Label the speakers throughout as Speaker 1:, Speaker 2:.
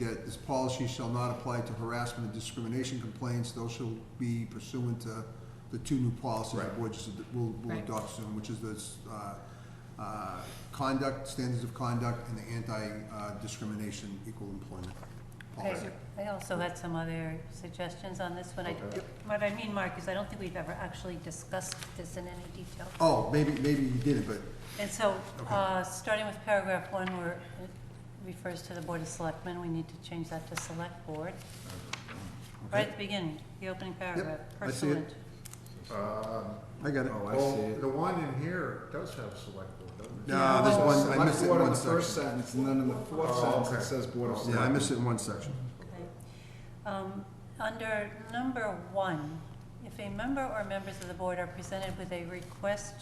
Speaker 1: that this policy shall not apply to harassment and discrimination complaints. Those shall be pursuant to the two new policies the
Speaker 2: Right.
Speaker 1: board just, will, will
Speaker 3: Right.
Speaker 1: adopt soon, which is this, uh, uh, conduct, standards of conduct, and the anti-discrimination equal employment policy.
Speaker 3: Okay, I also had some other suggestions on this one. I-
Speaker 2: Okay.
Speaker 3: What I mean, Mark, is I don't think we've ever actually discussed this in any detail.
Speaker 1: Oh, maybe, maybe you didn't, but
Speaker 3: And so, uh, starting with paragraph one, where it refers to the Board of Selectmen, we need to change that to Select Board. Right at the beginning, the opening paragraph,
Speaker 1: I see it.
Speaker 3: pursuant.
Speaker 1: I got it.
Speaker 2: Oh, I see
Speaker 4: Uh, Well,
Speaker 2: it.
Speaker 4: the one in here does have select board, doesn't it?
Speaker 1: No, there's one, I missed it in one
Speaker 2: Select board in the first
Speaker 1: section.
Speaker 2: sentence, and then in the fourth
Speaker 4: Oh,
Speaker 2: sentence,
Speaker 4: okay.
Speaker 2: it says board of
Speaker 1: Yeah, I
Speaker 2: selectmen.
Speaker 1: missed it in one section.
Speaker 3: Okay. Um, Under number one, if a member or members of the board are presented with a request,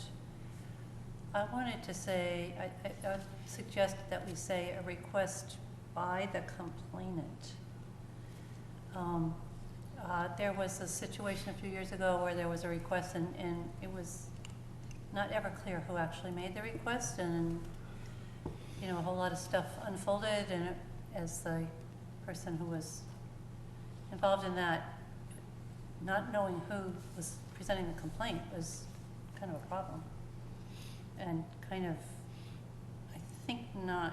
Speaker 3: I wanted to say, I- I I suggest that we say a request by the complainant. Um, uh, There was a situation a few years ago where there was a request and, and it was not ever clear who actually made the request and, you know, a whole lot of stuff unfolded and it- as the person who was involved in that, not knowing who was presenting the complaint was kind of a problem. And kind of, I think, not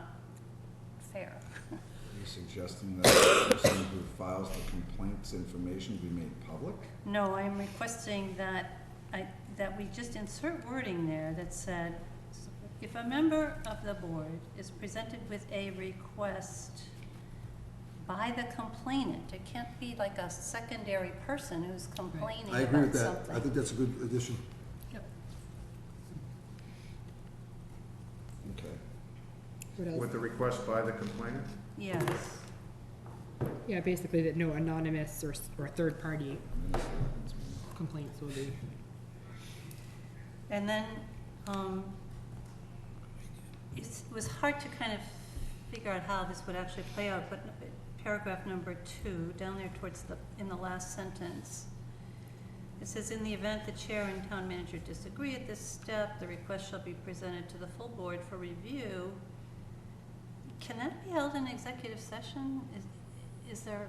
Speaker 3: fair.
Speaker 2: Are you suggesting that the person who files the complaints information be made public?
Speaker 3: No, I'm requesting that I, that we just insert wording there that said, if a member of the board is presented with a request by the complainant, it can't be like a secondary person who's complaining
Speaker 1: I agree with that.
Speaker 3: about
Speaker 1: I
Speaker 3: something.
Speaker 1: think that's a good addition.
Speaker 3: Yep.
Speaker 2: Okay.
Speaker 5: What else?
Speaker 4: With the request by the complainant?
Speaker 3: Yes,
Speaker 5: Yeah, basically that no anonymous or, s- or third-party
Speaker 2: And then the selectmen's meeting.
Speaker 5: complaints will be.
Speaker 3: and then, um, it's- it was hard to kind of figure out how this would actually play out, but paragraph number two, down there towards the, in the last sentence, It says, "In the event the chair and town manager disagree at this step, the request shall be presented to the full board for review." Can that be held in executive session? Is, is there,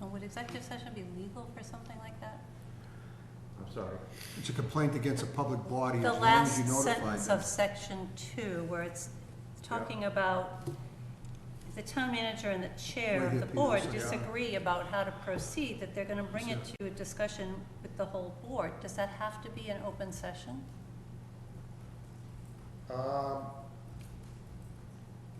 Speaker 3: uh, would executive session be legal for something like that?
Speaker 4: I'm sorry.
Speaker 1: It's a complaint against a public body as
Speaker 3: The
Speaker 1: long as you
Speaker 3: last
Speaker 1: notify
Speaker 3: sentence
Speaker 1: them.
Speaker 3: of section two, where it's talking about the town manager and the chair
Speaker 1: Right
Speaker 3: of
Speaker 1: here,
Speaker 3: the
Speaker 1: people
Speaker 3: board
Speaker 1: say, yeah.
Speaker 3: disagree about how to proceed, that they're gonna bring it to a discussion with the whole board. Does that have to be an open session?
Speaker 4: Um,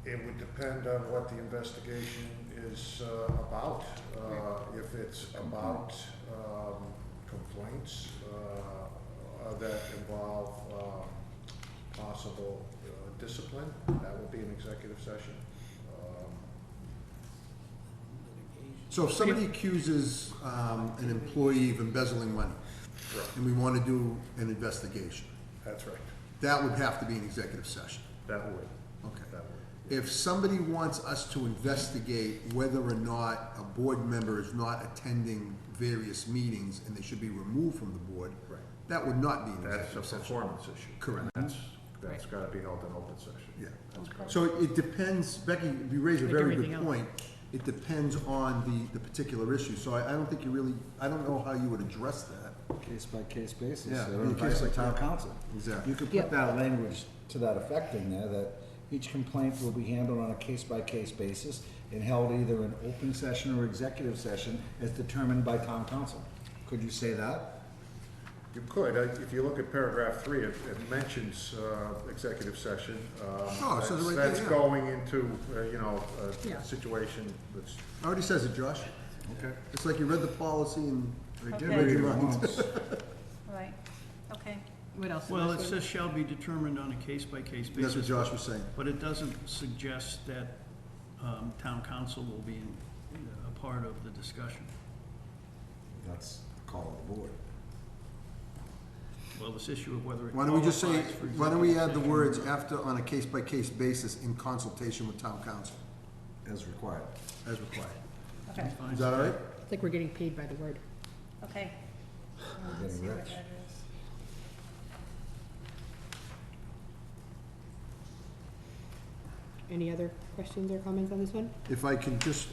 Speaker 4: It would depend on what the investigation is uh, about. Uh, If it's about um, complaints uh, uh, that involve um, possible uh, discipline, that would be an executive session. Um,
Speaker 1: So if somebody accuses um, an employee of embezzling money, and we want to do an investigation,
Speaker 4: That's right.
Speaker 1: that would have to be an executive session.
Speaker 4: That would,
Speaker 1: Okay.
Speaker 4: that would.
Speaker 1: If somebody wants us to investigate whether or not a board member is not attending various meetings and they should be removed from the board,
Speaker 4: Right.
Speaker 1: that would not be an
Speaker 4: That's a
Speaker 1: executive session.
Speaker 4: performance issue.
Speaker 1: Correct.
Speaker 4: That's, that's gotta be held in open session.
Speaker 1: Yeah.
Speaker 4: That's correct.
Speaker 1: So it depends, Becky, you raise a
Speaker 5: Like
Speaker 1: very
Speaker 5: everything
Speaker 1: good
Speaker 5: else.
Speaker 1: point. It depends on the, the particular issue, so I, I don't think you really, I don't know how you would address that.
Speaker 2: Case by case basis,
Speaker 1: Yeah,
Speaker 2: or
Speaker 1: on a
Speaker 2: advice
Speaker 1: case
Speaker 2: of
Speaker 1: by-
Speaker 2: town
Speaker 1: yeah.
Speaker 2: council.
Speaker 1: Exactly.
Speaker 2: You could
Speaker 5: Yeah.
Speaker 2: put that language to that effect in there, that each complaint will be handled on a case by case basis and held either in open session or executive session as determined by town council. Could you say that?
Speaker 4: You could, Uh, if you look at paragraph three, it, it mentions, uh, executive session. um,
Speaker 1: Oh, it says it
Speaker 4: that's-
Speaker 1: right there, yeah.
Speaker 4: That's going into, uh, you know,
Speaker 5: Yeah.
Speaker 4: a situation that's,
Speaker 1: Already says it, Josh.
Speaker 2: Okay.
Speaker 1: It's like you read the policy and.
Speaker 2: I did
Speaker 3: Okay.
Speaker 2: read it once.
Speaker 3: Right, okay.
Speaker 5: What else?
Speaker 6: Well, it says shall be determined on a case-by-case
Speaker 1: That's what
Speaker 6: basis,
Speaker 1: Josh was saying.
Speaker 6: but it doesn't suggest that um, town council will be in- a part of the discussion.
Speaker 2: That's the call of the board.
Speaker 6: Well, this issue of whether it
Speaker 1: Why don't we just say,
Speaker 6: qualifies for
Speaker 1: why don't we add the
Speaker 6: executive
Speaker 1: words after on a case by case basis in consultation with town council
Speaker 2: As required.
Speaker 1: as required?
Speaker 3: Okay,
Speaker 6: session, fine.
Speaker 1: Is that all right?
Speaker 5: It's like we're getting paid by the word.
Speaker 3: okay.
Speaker 2: We're getting rich.
Speaker 5: Any other questions or comments on this one?
Speaker 1: If I can just